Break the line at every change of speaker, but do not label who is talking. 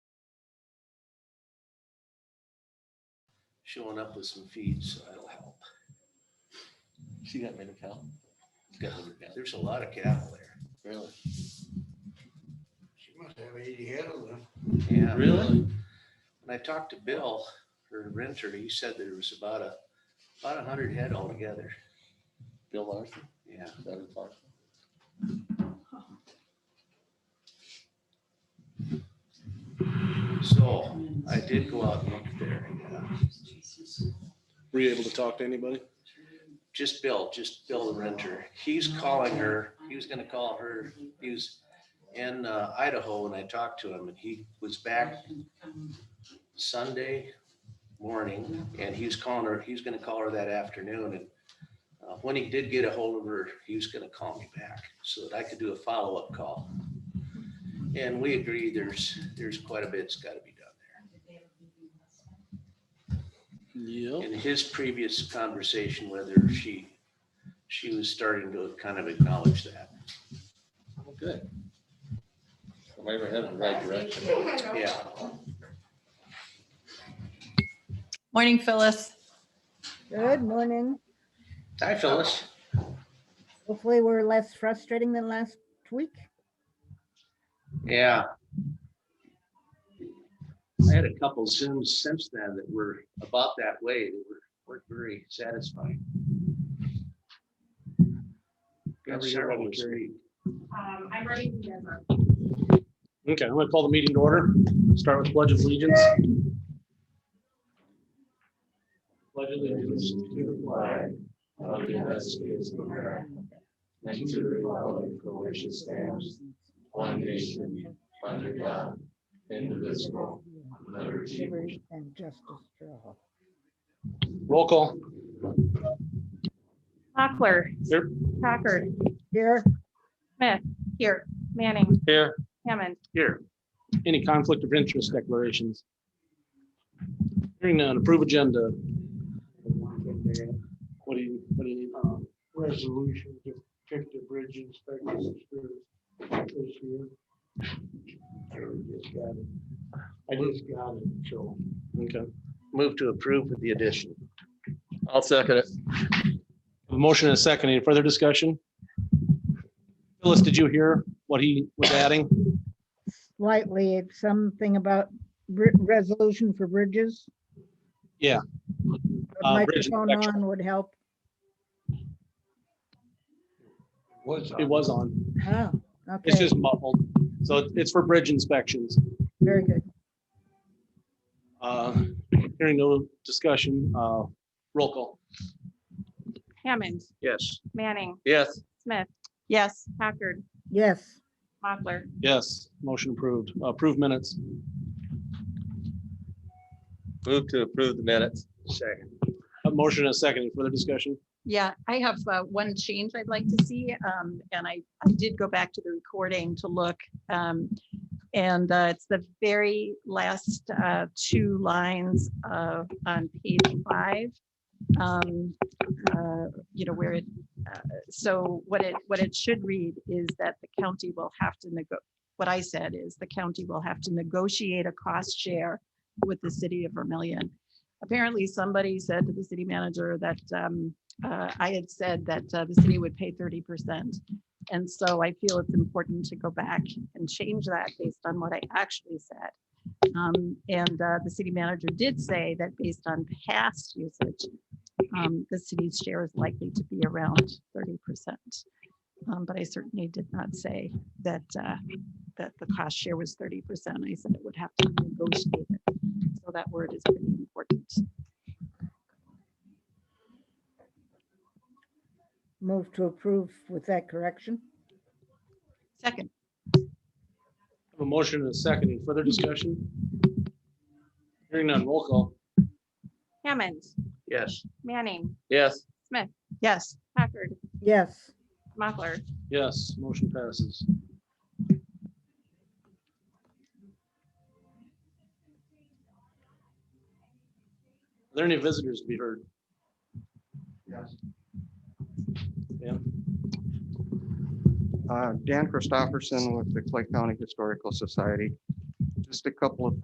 showing up with some feeds, so that'll help.
She got rid of hell.
Got to look at- There's a lot of cattle there.
Really?
She must have eighty head of them.
Yeah.
Really?
When I talked to Bill, her renter, he said there was about a, about a hundred head altogether.
Bill Larson?
Yeah.
Is that his last name?
So I did go out and look there. yeah.
Were you able to talk to anybody?
Just Bill, just Bill the renter. He's calling her. He was gonna call her. He was in uh, Idaho when I talked to him and he was back Sunday morning and he was calling her, he was gonna call her that afternoon and uh, when he did get a hold of her, he was gonna call me back so that I could do a follow-up call. And we agree there's, there's quite a bit's gotta be done there.
Yep.
in his previous conversation, whether she, she was starting to kind of acknowledge that.
Oh, Good. Am I ever headed in the right direction?
Yeah,
Morning, Phyllis.
Good morning.
hi Phyllis.
Hopefully we're less frustrating than last week.
Yeah. I had a couple Zooms since then that were about that way, that were, weren't very satisfying. Got several this week.
Um, I'm ready to go.
Okay, I'm gonna call the meeting to order. Start with pledge of allegiance. Pledge allegiance to the flag of the United States of America and to the republic for which it stands, one nation, under God, indivisible, liberty.
Liberty And justice for all.
Roll call.
Mochler.
Here.
Packard.
Here,
Here. Manning.
Here.
Hammond.
Here. Any conflict of interest declarations? Hearing none, approve agenda. What do you, what do you need?
Um, resolution to pick the bridge inspections for this year. I just got it. I just got it, so.
Okay.
Move to approve with the addition.
I'll second it.
A Motion and a second. Any further discussion? Phyllis, did you hear what he was adding?
slightly, it's something about br- resolution for bridges.
Yeah.
A
Uh, bridge
Microphone
inspection.
on would help.
Was.
It was on.
Oh,
It's
okay,
just muffled. So it- it's for bridge inspections.
very good.
Uh, Hearing no discussion, uh, roll call.
Hammond.
Yes.
Manning.
Yes.
Smith.
Yes,
Packard.
Yes,
Mochler.
Yes, motion approved. Approved minutes.
Move to approve the minutes.
Second.
A motion and a second. Any further discussion?
yeah, I have uh, one change I'd like to see, um, and I, I did go back to the recording to look. um, And uh, it's the very last uh, two lines of, on page five. um, uh, You know, where it, uh, so what it, what it should read is that the county will have to nego, what I said is the county will have to negotiate a cost share with the city of Vermillion. Apparently, somebody said to the city manager that um, uh, I had said that uh, the city would pay thirty percent. And so I feel it's important to go back and change that based on what I actually said. Um, And uh, the city manager did say that based on past usage, um, the city's share is likely to be around thirty percent. Um, But I certainly did not say that, uh, that the cost share was thirty percent. I said it would have to be negotiated. So that word is pretty important.
move to approve with that correction.
Second,
A motion and a second. Any further discussion? Hearing none, roll call.
Hammond.
Yes.
Manning.
Yes.
yes,
Packard.
Yes,
Mochler.
Yes, motion passes. Are there any visitors to be heard?
Dan Christopherson with the Clay County Historical Society. Just a couple of